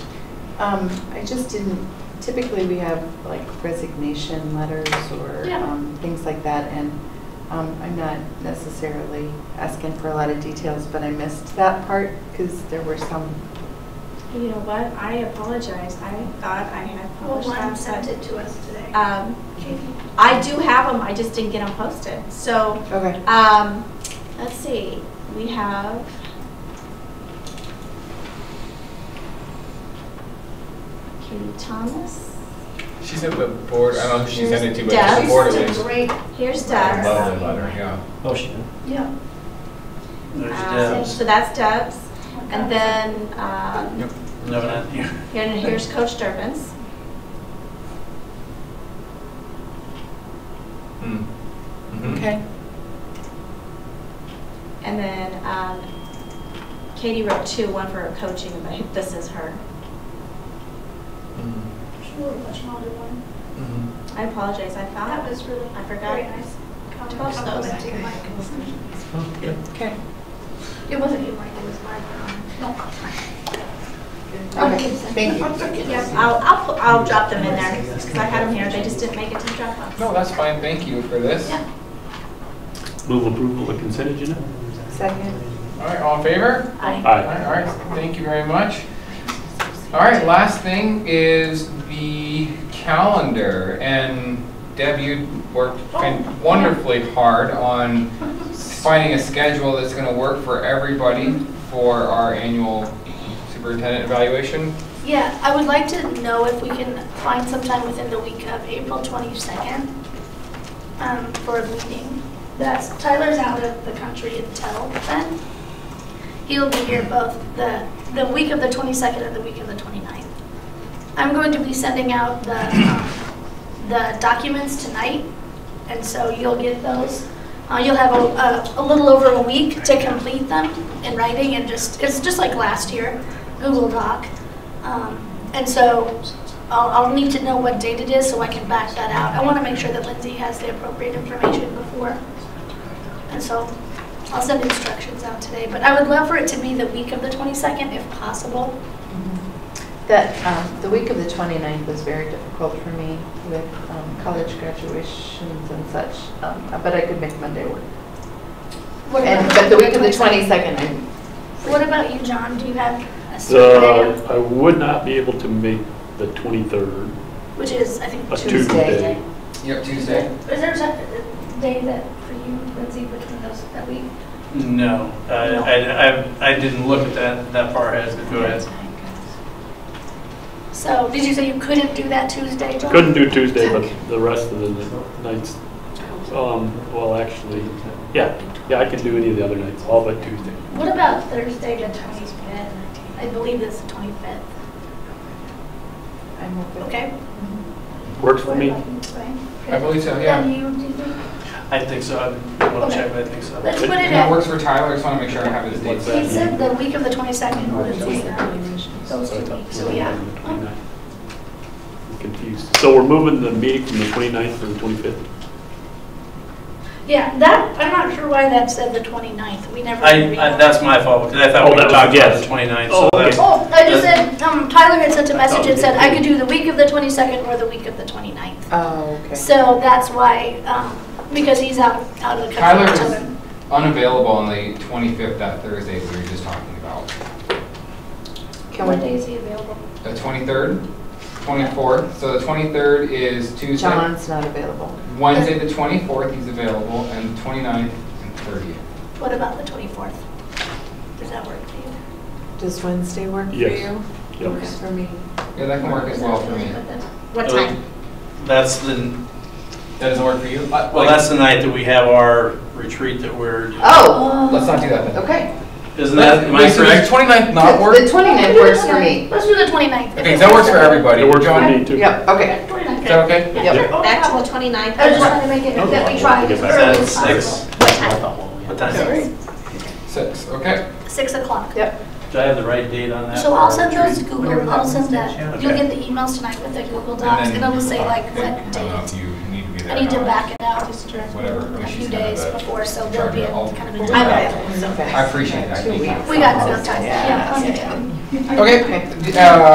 Um, I just didn't, typically we have like resignation letters or Yeah. um, things like that, and um, I'm not necessarily asking for a lot of details, but I missed that part because there were some, You know what? I apologize. I thought I had Well, published Juan that. sent but, it to us today. Um, Katie? I do have them, I just didn't get them posted. So, okay, um, let's see, we have. Katie Thomas, She sent the board, I don't know who she sent it to, but Here's the board at She's least. a great, here's Debs. Debs. Love the letter, yeah. Oh, she did. yeah. There's Uh, Debs. So that's Debs. And then, um, Yep. No, not here. here- and here's Coach Durbin's. Mm. Mhm. okay, And then, um, Katie wrote two, one for her coaching, but this is her. Mhm. She wrote a much longer one. Mhm. I apologize, I found. That was really I forgot. very nice. comment. Post those. Complimenting Mike. Oh, good. okay. It wasn't you, Mike, it was Mike. No. Okay, thank you. Yes, I'll, I'll, pu- I'll drop them in there, because I had them here, they just didn't make it to the drop No, box. that's fine, thank you for this. Yeah. Move approval of consent agenda? Second, All right, all in favor? I, All Aye. right, all right, thank you very much. All right, last thing is the calendar, and Deb, you worked Oh, fin- wonderfully hard on finding a schedule that's gonna work for everybody for our annual superintendent evaluation. Yeah, I would like to know if we can find sometime within the week of April 22nd um, for a meeting. That's, Tyler's out of the country until then. He'll be here both the, the week of the 22nd and the week of the 29th. I'm going to be sending out the, um, the documents tonight, and so you'll get those. Uh, You'll have a- a, a little over a week to complete them in writing and just, it's just like last year, Google Doc. Um, And so I'll, I'll need to know what date it is so I can back that out. I want to make sure that Lindsay has the appropriate information before. And so I'll send instructions out today, but I would love for it to be the week of the 22nd if possible. that, um, the week of the 29th was very difficult for me with um, college graduations and such, um, but I could make Monday work. What And, but about- the week of the 22nd, I'm What about you, John? Do you have a certain Uh, day, I would not be able to make the 23rd, which is, I think, a Tuesday? Tuesday. Tuesday. Yep, Tuesday. Is there a uh, day that for you, Lindsay, between those, that week? No, I, I, I- I didn't look at that, that far ahead, but go ahead. So, did you say you couldn't do that Tuesday, John? Couldn't do Tuesday, but the rest of the nights, um, well, actually, yeah, yeah, I can do any of the other nights, all but Tuesday. What about Thursday, the 25th? I believe it's the 25th, I'm open. okay? Works for me. What about you, Brian? I believe so, yeah. And you, do you think? I think so, I want to check, but I think so. Let's put it And that at, works for Tyler, I just wanna make sure I have his dates. he said the week of the 22nd, or the week of those So I two thought- weeks, so yeah. I'm Confused. So we're moving the meeting from the 29th to the 25th? Yeah, that, I'm not sure why that said the 29th, we never. I, agreed I- on that's my fault, because I Oh, thought we that was a talked about guess. the 29th, Oh, so okay. that's, Oh, I just Uh, said, um, Tyler had sent a message and said I could do the week of the 22nd or the week of the 29th. Oh, okay. So that's why, um, because he's out, out of the country. Tyler until is then. unavailable on the 25th, that Thursday we were just talking about. Can What day we, is he available? The 23rd, 24th, so the 23rd is Tuesday. John's not available. Wednesday, the 24th, he's available, and 29th and 30th. What about the 24th? Does that work for you? Does Wednesday work for you? Yes. Yep. Works for me. Yeah, that can work as well for me. what Uh, time? that's the, That doesn't work for you? Uh, well, like- that's the night that we have our retreat that we're, Oh, Let's not do that then. okay. isn't that, am I Wait, so does correct? 29th not The- work? The 29th works for me. Let's do the 29th. Okay, that works for everybody. It works for John, me too. Yep, okay. Is that 29th. okay? Yeah, Yep. sure. Oh, Back to wow. the twenty-ninth? I was just trying to make it No, that we we'll try get as back. early Is as that possible. six? What time? What time is it? Six, okay. Six o'clock. Yep. Do I have the right date on that? So for I'll our send retreat? those Google, I'll send that, you'll Okay. get the emails tonight with the Google And Docs, then- and it'll say like what I don't know if date. you need to be there. I need to or not. back it out Whatever, a but few she's gonna days have a- before, so there'll be a kind of a Okay. time. Okay. I appreciate that. Two Thank you. weeks. We got enough time, yeah, plenty of time. Okay, uh,